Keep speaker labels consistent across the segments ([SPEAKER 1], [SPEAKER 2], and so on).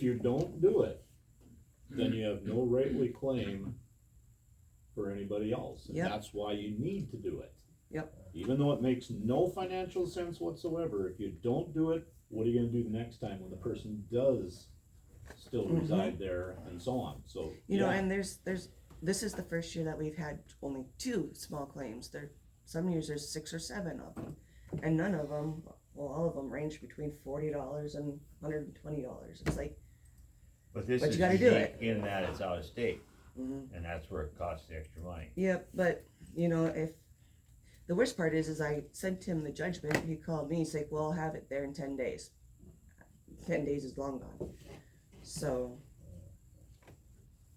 [SPEAKER 1] If you don't do it, then you have no rightly claim for anybody else. And
[SPEAKER 2] Yep.
[SPEAKER 1] that's why you need to do it.
[SPEAKER 2] Yep.
[SPEAKER 1] Even though it makes no financial sense whatsoever, if you don't do it, what are you gonna do the next time when the person does still
[SPEAKER 2] Mhm.
[SPEAKER 1] reside there and so on, so.
[SPEAKER 2] You know,
[SPEAKER 1] yeah.
[SPEAKER 2] and there's, there's, this is the first year that we've had only two small claims. There, some years there's six or seven of them. And none of them, well, all of them range between forty dollars and hundred and twenty dollars. It's like,
[SPEAKER 3] But this
[SPEAKER 2] But
[SPEAKER 3] is
[SPEAKER 2] you gotta do
[SPEAKER 3] unique in that it's out of state,
[SPEAKER 2] mhm.
[SPEAKER 3] and that's where it costs the extra money.
[SPEAKER 2] yeah, but, you know, if, the worst part is, is I sent him the judgment. He called me, he's like, well, I'll have it there in ten days. Ten days is long gone. So,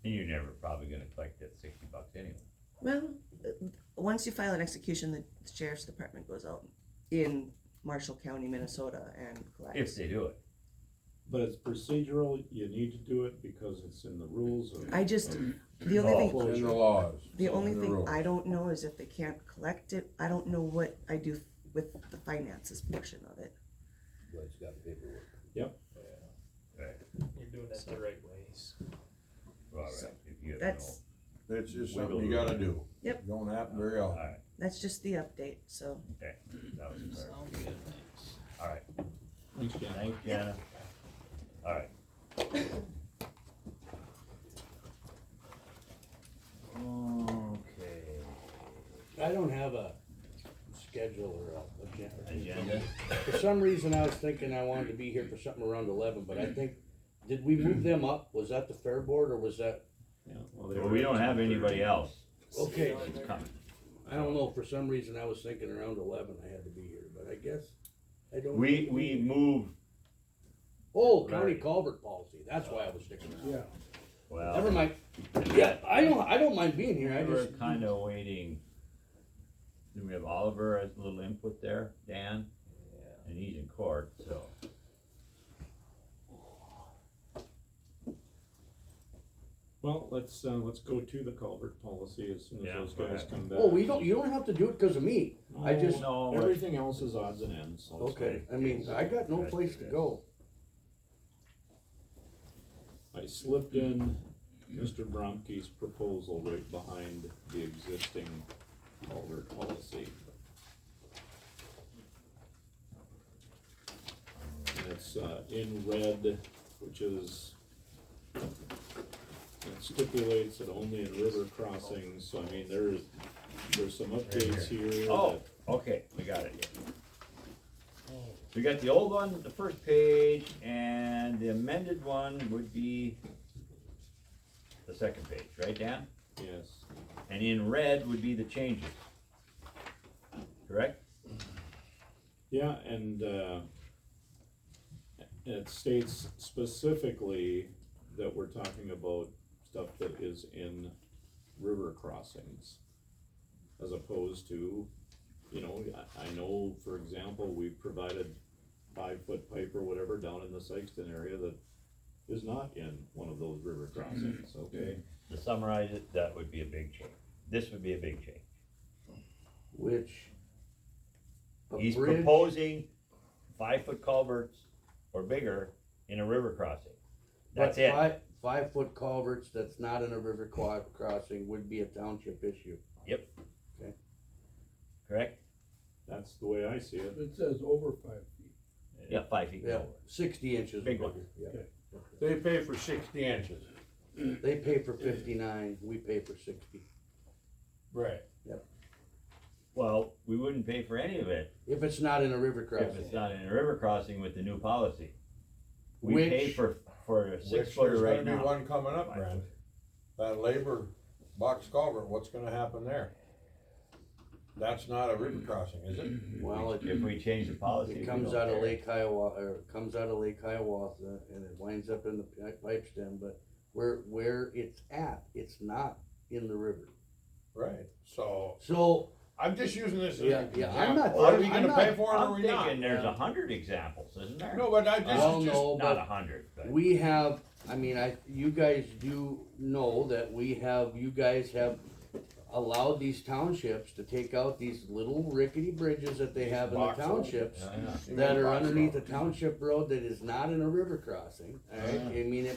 [SPEAKER 3] And you're never probably gonna collect that sixty bucks anyway.
[SPEAKER 2] Well, uh, once you file an execution, the sheriff's department goes out in Marshall County, Minnesota and
[SPEAKER 3] If
[SPEAKER 2] collects.
[SPEAKER 3] they do it,
[SPEAKER 1] But it's procedural, you need to do it because it's in the rules of.
[SPEAKER 2] I just, the only thing,
[SPEAKER 1] Well,
[SPEAKER 4] And the laws.
[SPEAKER 2] the
[SPEAKER 4] and
[SPEAKER 2] only
[SPEAKER 4] the
[SPEAKER 2] thing
[SPEAKER 4] rules.
[SPEAKER 2] I don't know is if they can't collect it, I don't know what I do with the finances portion of it.
[SPEAKER 5] But it's got paperwork.
[SPEAKER 1] Yep.
[SPEAKER 3] right,
[SPEAKER 6] You're doing it the right ways.
[SPEAKER 3] well,
[SPEAKER 2] So,
[SPEAKER 3] right, if you have
[SPEAKER 2] That's,
[SPEAKER 4] It's just
[SPEAKER 3] We
[SPEAKER 4] something you
[SPEAKER 3] will.
[SPEAKER 4] gotta do.
[SPEAKER 2] Yep.
[SPEAKER 4] Don't happen very
[SPEAKER 3] no.
[SPEAKER 4] often.
[SPEAKER 3] Alright,
[SPEAKER 2] that's just the update, so.
[SPEAKER 3] okay, that was a fair,
[SPEAKER 6] Sound good, thanks.
[SPEAKER 3] alright,
[SPEAKER 1] Thanks, Jan.
[SPEAKER 3] thanks, Jana. Alright. Okay,
[SPEAKER 5] I don't have a schedule or a agenda.
[SPEAKER 3] agenda,
[SPEAKER 5] For some reason, I was thinking I wanted to be here for something around eleven, but I think, did we move them up? Was that the fair board or was that?
[SPEAKER 1] Yeah, well, they
[SPEAKER 3] well,
[SPEAKER 1] were
[SPEAKER 3] we
[SPEAKER 1] at
[SPEAKER 3] don't have
[SPEAKER 1] 10:30.
[SPEAKER 3] anybody else,
[SPEAKER 5] Okay,
[SPEAKER 3] it's coming,
[SPEAKER 5] I don't know, for some reason, I was thinking around eleven I had to be here, but I guess, I don't.
[SPEAKER 3] we, we moved,
[SPEAKER 5] Oh, county culvert policy, that's why I was thinking. Yeah.
[SPEAKER 3] well.
[SPEAKER 5] Never mind, yeah, I don't, I don't mind being here, I
[SPEAKER 3] We were
[SPEAKER 5] just,
[SPEAKER 3] kinda waiting. Then we have Oliver as a little input there, Dan, and he's in court, so.
[SPEAKER 1] Well, let's, uh, let's go to the culvert policy as soon as
[SPEAKER 3] Yeah,
[SPEAKER 1] those
[SPEAKER 3] go
[SPEAKER 1] guys
[SPEAKER 3] ahead.
[SPEAKER 1] come back.
[SPEAKER 5] oh, we don't, you don't have to do it because of me, I
[SPEAKER 1] No,
[SPEAKER 5] just-
[SPEAKER 3] No, we're-
[SPEAKER 1] Everything else is odds and ends, so it's
[SPEAKER 5] Oh, okay, I mean, I got no place to go.
[SPEAKER 1] I slipped in Mr. Bromke's proposal right behind the existing culvert policy. And it's, uh, in red, which is, it stipulates that only in river crossings, so I mean, there's, there's some updates here. that-
[SPEAKER 3] oh, okay, we got it.
[SPEAKER 6] Oh.
[SPEAKER 3] We got the old one, the first page, and the amended one would be the second page, right, Dan?
[SPEAKER 1] Yes,
[SPEAKER 3] And in red would be the changes. Correct?
[SPEAKER 1] yeah, and, uh, it states specifically that we're talking about stuff that is in river crossings. As opposed to, you know, I, I know, for example, we provided five-foot pipe or whatever down in the Sykeston area that is not in one of those river crossings, okay?
[SPEAKER 3] To summarize it, that would be a big change. This would be a big change.
[SPEAKER 5] Which. a
[SPEAKER 3] He's
[SPEAKER 5] bridge-
[SPEAKER 3] proposing five foot culverts or bigger in a river crossing. That's
[SPEAKER 5] but
[SPEAKER 3] it.
[SPEAKER 5] Five, five foot culverts that's not in a river qua- crossing would be a township issue.
[SPEAKER 3] Correct?
[SPEAKER 1] That's the way I see it.
[SPEAKER 7] It says over five feet.
[SPEAKER 3] Yeah, five feet.
[SPEAKER 5] Yeah, sixty inches.
[SPEAKER 3] Big
[SPEAKER 5] would be- yeah.
[SPEAKER 4] They pay for sixty inches.
[SPEAKER 5] They pay for fifty-nine, we pay for sixty.
[SPEAKER 7] Right.
[SPEAKER 3] Well, we wouldn't pay for any of it
[SPEAKER 5] If it's not in a river
[SPEAKER 3] if
[SPEAKER 5] crossing.
[SPEAKER 3] it's not in a river crossing with the new policy. We
[SPEAKER 5] Which-
[SPEAKER 3] pay for, for a six
[SPEAKER 4] Which there's
[SPEAKER 3] footer right
[SPEAKER 4] gonna be
[SPEAKER 3] now.
[SPEAKER 4] One coming up, Brad. That labor box culvert, what's gonna happen there? That's not a river crossing, is it?
[SPEAKER 5] Well, it,
[SPEAKER 3] If we change the policy. we
[SPEAKER 5] it comes
[SPEAKER 3] don't
[SPEAKER 5] out of
[SPEAKER 3] care.
[SPEAKER 5] Lake Hiawatha, or it comes out of Lake Hiawatha and it winds up in the pi- pipe stem, but where, where it's at, it's not in the river.
[SPEAKER 4] Right, so
[SPEAKER 5] So,
[SPEAKER 4] I'm just using this as an
[SPEAKER 5] Yeah,
[SPEAKER 4] example.
[SPEAKER 5] yeah, I'm not-
[SPEAKER 4] Are we
[SPEAKER 5] I'm
[SPEAKER 4] gonna
[SPEAKER 5] not-
[SPEAKER 4] pay for it or are
[SPEAKER 3] I'm
[SPEAKER 4] we not?
[SPEAKER 3] thinking there's a hundred examples, isn't there?
[SPEAKER 4] No, but I
[SPEAKER 5] I don't
[SPEAKER 4] just, just,
[SPEAKER 5] know,
[SPEAKER 3] Not
[SPEAKER 5] but
[SPEAKER 3] a hundred, but
[SPEAKER 5] We have, I mean, I, you guys do know that we have, you guys have allowed these townships to take out these little rickety bridges that they have in the
[SPEAKER 4] Box roads.
[SPEAKER 5] townships
[SPEAKER 4] You mean
[SPEAKER 5] that are
[SPEAKER 4] box
[SPEAKER 5] underneath a
[SPEAKER 4] roads. Ah.
[SPEAKER 5] township road that is not in a river crossing, alright? I mean, it